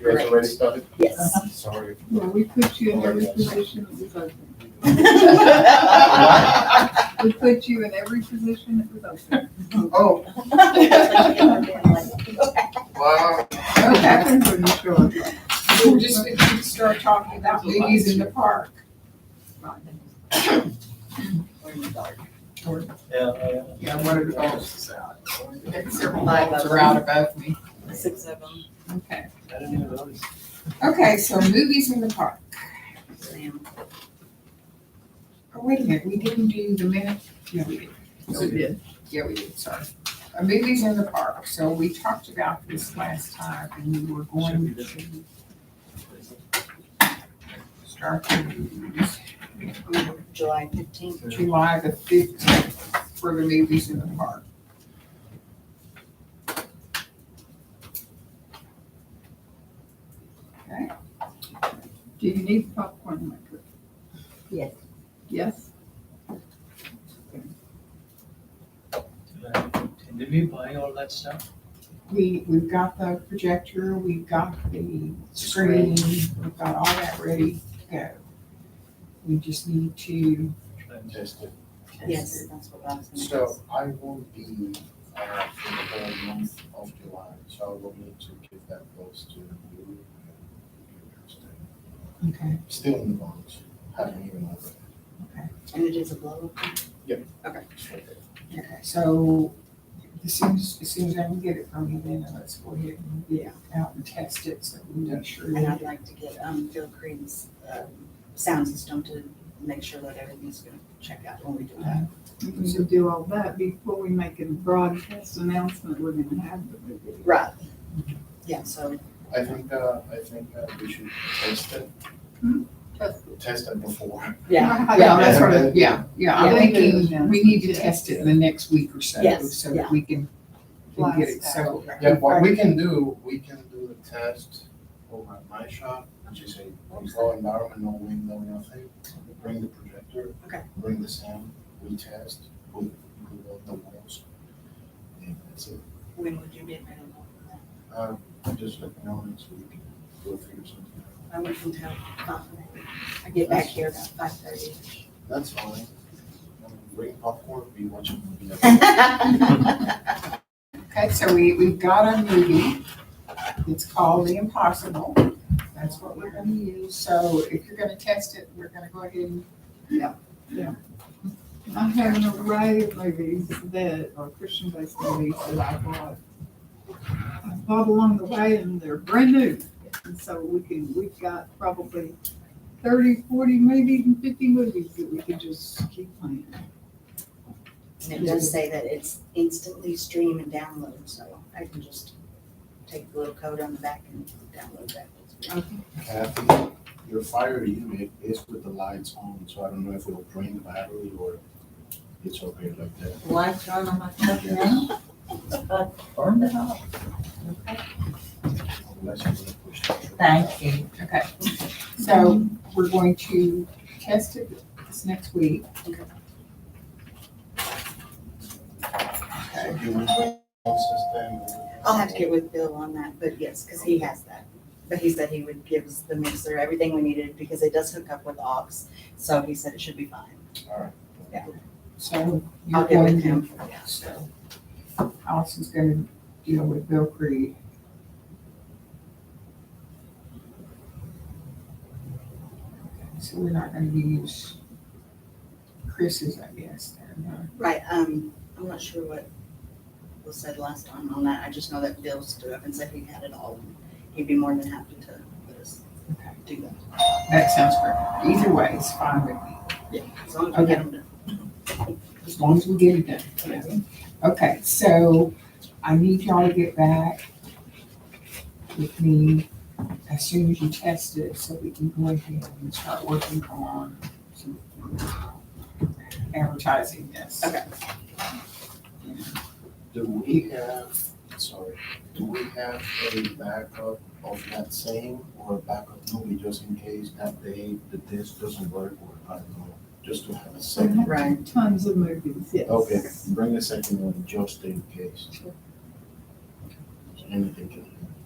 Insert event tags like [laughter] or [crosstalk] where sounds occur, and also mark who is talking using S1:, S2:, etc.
S1: You guys already started?
S2: Yes.
S1: Sorry.
S3: Yeah, we put you in every position that was open. We put you in every position that was open.
S1: Oh, wow.
S3: What happens when you show up?
S4: We're just, we start talking about ladies in the park.
S5: Yeah,
S4: Yeah, one of the dogs is out. And several dogs are out above me.
S2: Six of them.
S4: Okay.
S5: I didn't even notice.
S4: Okay, so movies in the park. Oh, wait a minute, we didn't do the minute? Yeah, we did.
S3: So did.
S4: Yeah, we did, sorry. Uh, Movies in the park, so we talked about this last time, and we were going to start the movies.
S2: July fifteenth.
S4: July the fifteenth for the movies in the park. Okay,
S3: Do you need popcorn maker?
S2: Yes.
S3: Yes?
S5: And Did we buy all that stuff?
S4: we, we've got the projector, we've got the screen, we've got all that ready to go. We just need to.
S1: Fantastic.
S2: Yes, that's what I was gonna ask.
S1: So I will be, uh, for the whole month of July, so I will need to give that goals to you. and you guys then.
S4: Okay.
S1: Still in the bonds, haven't even opened.
S2: And it is a blow up.
S4: Okay, so as soon as, as soon as I can get it from you, then let's go ahead and get it out and test it, so we make sure.
S2: And I'd like to get, um, Phil Creed's, um, sound system to make sure that everything's gonna check out when we do that.
S3: We should do all that before we make a broadcast announcement we're gonna have the movie.
S2: Right. Yeah, so,
S1: I think, uh, I think uh, we should test it,
S3: That's-
S1: test it before.
S2: yeah,
S4: Yeah, that's what, I- yeah, yeah, I'm
S3: Yeah.
S4: thinking, we need to test it in the next week or so,
S2: Yes,
S4: so that
S2: yeah.
S4: we can, can get it,
S3: Blast
S4: so.
S1: Yeah, what we can do, we can do the test over at my shop, which is a control environment, no window, nothing. We Bring the projector.
S2: Okay.
S1: Bring the sound, we test, we, we build the walls. And that's it.
S2: when would you be available for that?
S1: Uh, I'm just looking on next week, we'll figure something out.
S2: I work until five. I get back here about five thirty.
S1: That's fine. Um, Bring popcorn, be watching movie.
S2: [laughs]
S4: Okay, so we, we've got a movie, it's called The Impossible, that's what we're gonna use, so if you're gonna test it, we're gonna go ahead and,
S3: I have an array of movies that are Christian-based movies that I bought. I bought along the way and they're brand new. And so we can, we've got probably 30, 40, maybe even fifty movies that we can just keep playing.
S2: And it does say that it's instantly stream and download, so I can just take the little code on the back and download that.
S1: Kathy, your fire unit is with the lights on, so I don't know if it'll drain the battery or it's okay like that.
S2: Lights on on my
S5: Burn it out.
S1: Unless you're gonna push the trigger.
S4: you. Okay, so we're going to test it this next week.
S1: So if you want to process them,
S2: I'll have to get with Bill on that, but yes, because he has that. But he said he would give us the mixer, everything we needed, because it does hook up with aux, so he said it should be fine. Yeah.
S4: So
S2: I'll
S4: you're
S2: get
S4: going
S2: with
S4: to,
S2: him. yeah.
S4: so Allison's gonna deal with Bill Creed. So we're not gonna use Chris's, I guess, then, huh?
S2: Right, um, I'm not sure what was said last time on that. I just know that Bill stood up and said he had it all. and He'd be more than happy to let us
S4: Okay.
S2: do that.
S4: That sounds perfect. Either way, it's fine with me,
S2: As long as we get him to,
S4: as long as we get it done. you know? Okay, so I need y'all to get back with me as soon as you test it, so we can go ahead and start working on some advertising this.
S2: Okay.
S1: Do we have, sorry, do we have a backup of that same or a backup movie just in case that day the disc doesn't work or I don't know, just to have a
S3: So I
S2: Mm-hmm.
S1: second?
S3: have
S2: Right.
S3: Tons of movies, yes.
S1: Okay, bring a second one just in case. So Anything can happen.